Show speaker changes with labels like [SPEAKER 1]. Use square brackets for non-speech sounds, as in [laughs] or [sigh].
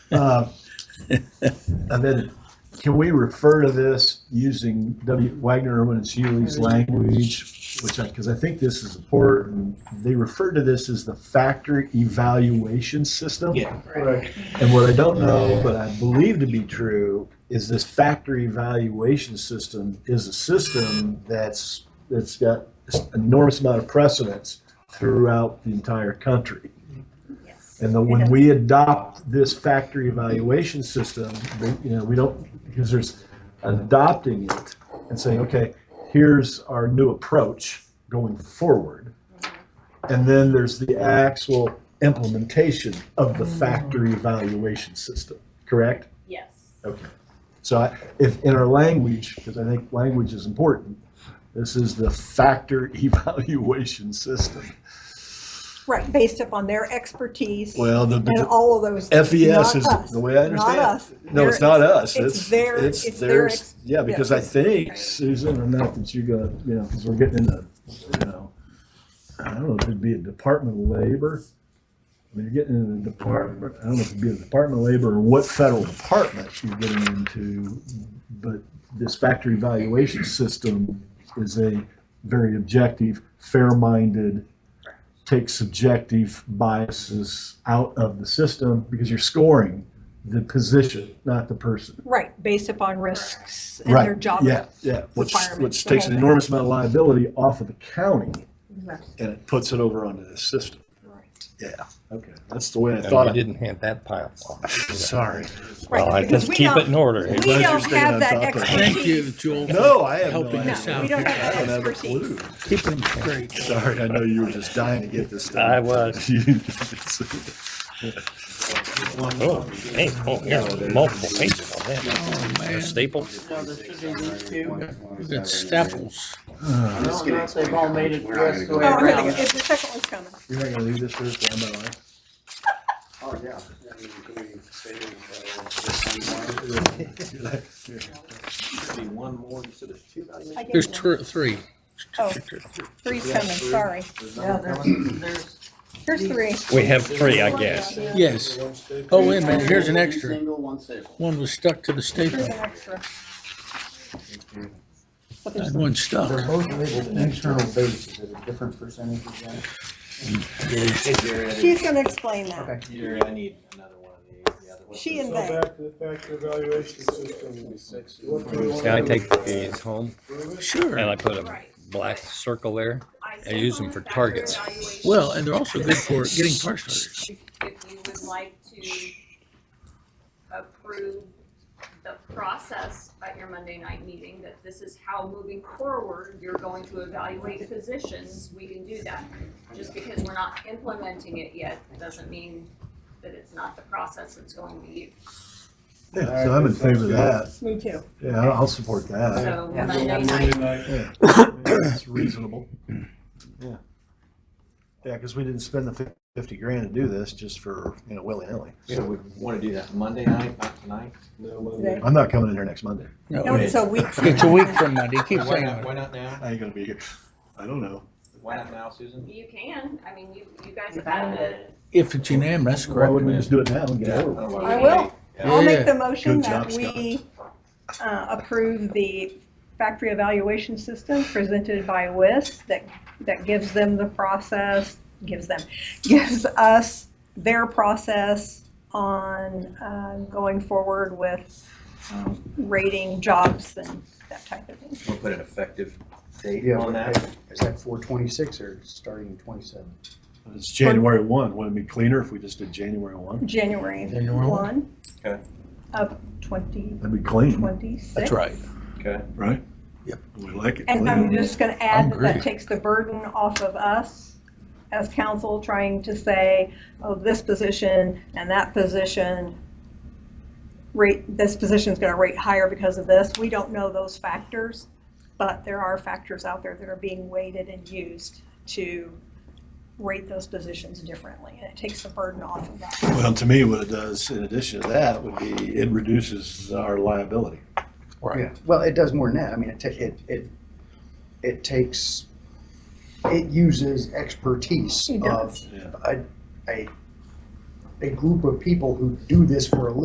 [SPEAKER 1] Uh, And then, can we refer to this using W. Wagner Irwin and Seeley's language? Which I, because I think this is important. They refer to this as the factor evaluation system.
[SPEAKER 2] Yeah.
[SPEAKER 3] Right.
[SPEAKER 1] And what I don't know, but I believe to be true, is this factor evaluation system is a system that's, that's got enormous amount of precedence throughout the entire country.
[SPEAKER 3] Yes.
[SPEAKER 1] And then when we adopt this factory evaluation system, we- you know, we don't, because there's adopting it and saying, okay, here's our new approach going forward. And then there's the actual implementation of the factory evaluation system, correct?
[SPEAKER 3] Yes.
[SPEAKER 1] Okay. So I- if, in our language, because I think language is important, this is the factor [laughs] evaluation system.
[SPEAKER 4] Right, based upon their expertise
[SPEAKER 1] Well, the.
[SPEAKER 4] and all of those. things,
[SPEAKER 1] FES
[SPEAKER 4] not
[SPEAKER 1] E is
[SPEAKER 4] us,
[SPEAKER 1] the way I understand.
[SPEAKER 4] Not us.
[SPEAKER 1] it. No, it's
[SPEAKER 4] Their-
[SPEAKER 1] not us.
[SPEAKER 4] It's their, it's their,
[SPEAKER 1] theirs.
[SPEAKER 4] ex-
[SPEAKER 1] Yeah, because I think Susan, or not that you got, you know, because we're getting into, you know, I don't know if it'd be a Department of Labor. When you're getting into the department, I don't know if it'd be a Department of Labor or what federal department you're getting into. But this factory evaluation system is a very objective, fair-minded, take subjective biases out of the system because you're scoring the position, not the person.
[SPEAKER 4] right, based upon risks and
[SPEAKER 1] Right.
[SPEAKER 4] their job.
[SPEAKER 1] Yeah, yeah, which,
[SPEAKER 4] requirements,
[SPEAKER 1] which
[SPEAKER 4] the
[SPEAKER 1] takes
[SPEAKER 4] whole
[SPEAKER 1] an
[SPEAKER 4] thing.
[SPEAKER 1] enormous amount of liability off of the county
[SPEAKER 3] Right.
[SPEAKER 1] and it puts it over onto the system.
[SPEAKER 4] Right.
[SPEAKER 1] Yeah, okay, that's the way I
[SPEAKER 5] No,
[SPEAKER 1] thought
[SPEAKER 5] you
[SPEAKER 1] I did.
[SPEAKER 5] didn't hand that pile off.
[SPEAKER 1] [laughs] Sorry.
[SPEAKER 4] Right,
[SPEAKER 5] Well, I
[SPEAKER 4] because
[SPEAKER 5] just
[SPEAKER 4] we
[SPEAKER 5] keep
[SPEAKER 4] don't-
[SPEAKER 5] it in order.
[SPEAKER 4] We
[SPEAKER 5] here.
[SPEAKER 1] you're
[SPEAKER 4] don't
[SPEAKER 1] staying on
[SPEAKER 4] have that
[SPEAKER 1] top of it.
[SPEAKER 6] Thank you,
[SPEAKER 4] expertise.
[SPEAKER 6] Joel. for
[SPEAKER 1] No, I have no
[SPEAKER 6] Helping us
[SPEAKER 4] No,
[SPEAKER 1] idea.
[SPEAKER 6] out.
[SPEAKER 4] we don't
[SPEAKER 1] I
[SPEAKER 4] have
[SPEAKER 1] don't
[SPEAKER 4] that
[SPEAKER 1] have a
[SPEAKER 4] expertise.
[SPEAKER 1] clue.
[SPEAKER 6] Keep them straight.
[SPEAKER 1] Sorry, I know you were just dying to get this done. [laughs]
[SPEAKER 5] I
[SPEAKER 6] [laughs]
[SPEAKER 5] was. Oh, hey, oh, there's multiple pages on that.
[SPEAKER 6] Oh, man.
[SPEAKER 5] Staple.
[SPEAKER 2] No, there should be these two.
[SPEAKER 6] You got staples.
[SPEAKER 2] I don't know if they've all made it the rest of the way
[SPEAKER 4] Oh, I'm gonna,
[SPEAKER 2] around.
[SPEAKER 4] if the second one's coming.
[SPEAKER 1] You're not gonna leave this here for MLA?
[SPEAKER 7] Oh, yeah. I mean, can we say, uh, this one? Be one more instead of two
[SPEAKER 4] [clears throat]
[SPEAKER 7] valuations?
[SPEAKER 4] I gave
[SPEAKER 6] There's
[SPEAKER 4] you
[SPEAKER 6] two, three.
[SPEAKER 4] Oh. Three's coming, sorry.
[SPEAKER 2] Yeah, there's, there's.
[SPEAKER 4] Here's three.
[SPEAKER 5] We have three, I guess.
[SPEAKER 6] Yes. Oh, wait a minute, here's an
[SPEAKER 7] One
[SPEAKER 6] extra.
[SPEAKER 7] Single, one staple.
[SPEAKER 6] One was stuck to the
[SPEAKER 4] Here's
[SPEAKER 6] staple.
[SPEAKER 4] an extra. But there's
[SPEAKER 6] That one stuck.
[SPEAKER 7] They're both labeled internal base, is it a different percentage of that?
[SPEAKER 4] She's gonna explain that.
[SPEAKER 2] You're, I need another one of these, the other one.
[SPEAKER 4] She and
[SPEAKER 8] Go
[SPEAKER 4] they.
[SPEAKER 8] back to the factor evaluation system. What do we want
[SPEAKER 5] Can I
[SPEAKER 8] to
[SPEAKER 5] take these home?
[SPEAKER 8] improve it?
[SPEAKER 6] Sure.
[SPEAKER 5] And I put a black circle there. Um, I use them for targets.
[SPEAKER 6] Well, and they're also good for getting tar starters.
[SPEAKER 3] If you would like to approve the process at your Monday night meeting, that this is how moving forward, you're going to evaluate positions, we can do that. Just because we're not implementing it yet, doesn't mean that it's not the process that's going to be used.
[SPEAKER 1] Yeah, so I'm in favor of that.
[SPEAKER 4] Me too.
[SPEAKER 1] Yeah, I'll I'll support that.
[SPEAKER 3] So
[SPEAKER 8] Yeah.
[SPEAKER 3] Monday
[SPEAKER 8] Monday
[SPEAKER 3] night,
[SPEAKER 8] night.
[SPEAKER 1] It's reasonable. Yeah. Yeah, because we didn't spend the fif- fifty grand to do this just for, you know, willy-nilly.
[SPEAKER 2] So we wanna do that Monday night, not tonight?
[SPEAKER 8] No, Monday.
[SPEAKER 1] I'm not coming in here next Monday.
[SPEAKER 4] No,
[SPEAKER 6] No,
[SPEAKER 4] it's a week. from
[SPEAKER 6] It's a week
[SPEAKER 4] now.
[SPEAKER 6] from Monday. Keep
[SPEAKER 2] Why
[SPEAKER 6] saying
[SPEAKER 2] not,
[SPEAKER 6] that.
[SPEAKER 2] why not now?
[SPEAKER 1] I ain't gonna be here. I don't know.
[SPEAKER 2] Why not now, Susan?
[SPEAKER 3] you can, I mean, you, you guys have had it.
[SPEAKER 6] If it's unanimous,
[SPEAKER 1] Why
[SPEAKER 6] correct?
[SPEAKER 1] wouldn't we just do it now and get it over with?
[SPEAKER 4] I will.
[SPEAKER 6] Oh,
[SPEAKER 4] I'll make the motion
[SPEAKER 1] Good
[SPEAKER 4] that
[SPEAKER 1] job,
[SPEAKER 4] we uh, approve the factory evaluation system presented by WIS that, that gives them the process, gives them, gives us their process on uh, going forward with um, rating jobs and that type of thing.
[SPEAKER 2] We'll put an effective date
[SPEAKER 7] Yeah,
[SPEAKER 2] on
[SPEAKER 7] but
[SPEAKER 2] that.
[SPEAKER 7] hey, is that four twenty-six or starting twenty-seven?
[SPEAKER 1] It's January one. Wouldn't it be cleaner if we just did January one?
[SPEAKER 4] January
[SPEAKER 6] January
[SPEAKER 4] 1
[SPEAKER 2] Okay.
[SPEAKER 4] of 2026.
[SPEAKER 1] That'd be clean,
[SPEAKER 6] That's right.
[SPEAKER 1] right?
[SPEAKER 6] Yep.
[SPEAKER 1] We like it
[SPEAKER 4] And I'm
[SPEAKER 1] clean.
[SPEAKER 4] just going to
[SPEAKER 6] I'm
[SPEAKER 4] add that
[SPEAKER 6] great.
[SPEAKER 4] that takes the burden off of us as council trying to say, oh, this position and that position, rate, this position's going to rate higher because of this. We don't know those factors, but there are factors out there that are being weighted and used to rate those positions differently. And it takes the burden off of us.
[SPEAKER 1] Well, to me, what it does in addition to that would be it reduces our liability.
[SPEAKER 6] Right.
[SPEAKER 7] Yeah, well, it does more than that. I mean, it, ta- it, it, it takes, it uses expertise
[SPEAKER 4] It
[SPEAKER 7] of
[SPEAKER 4] does.
[SPEAKER 1] Yeah.
[SPEAKER 7] a, a, a group of people who do this for a living.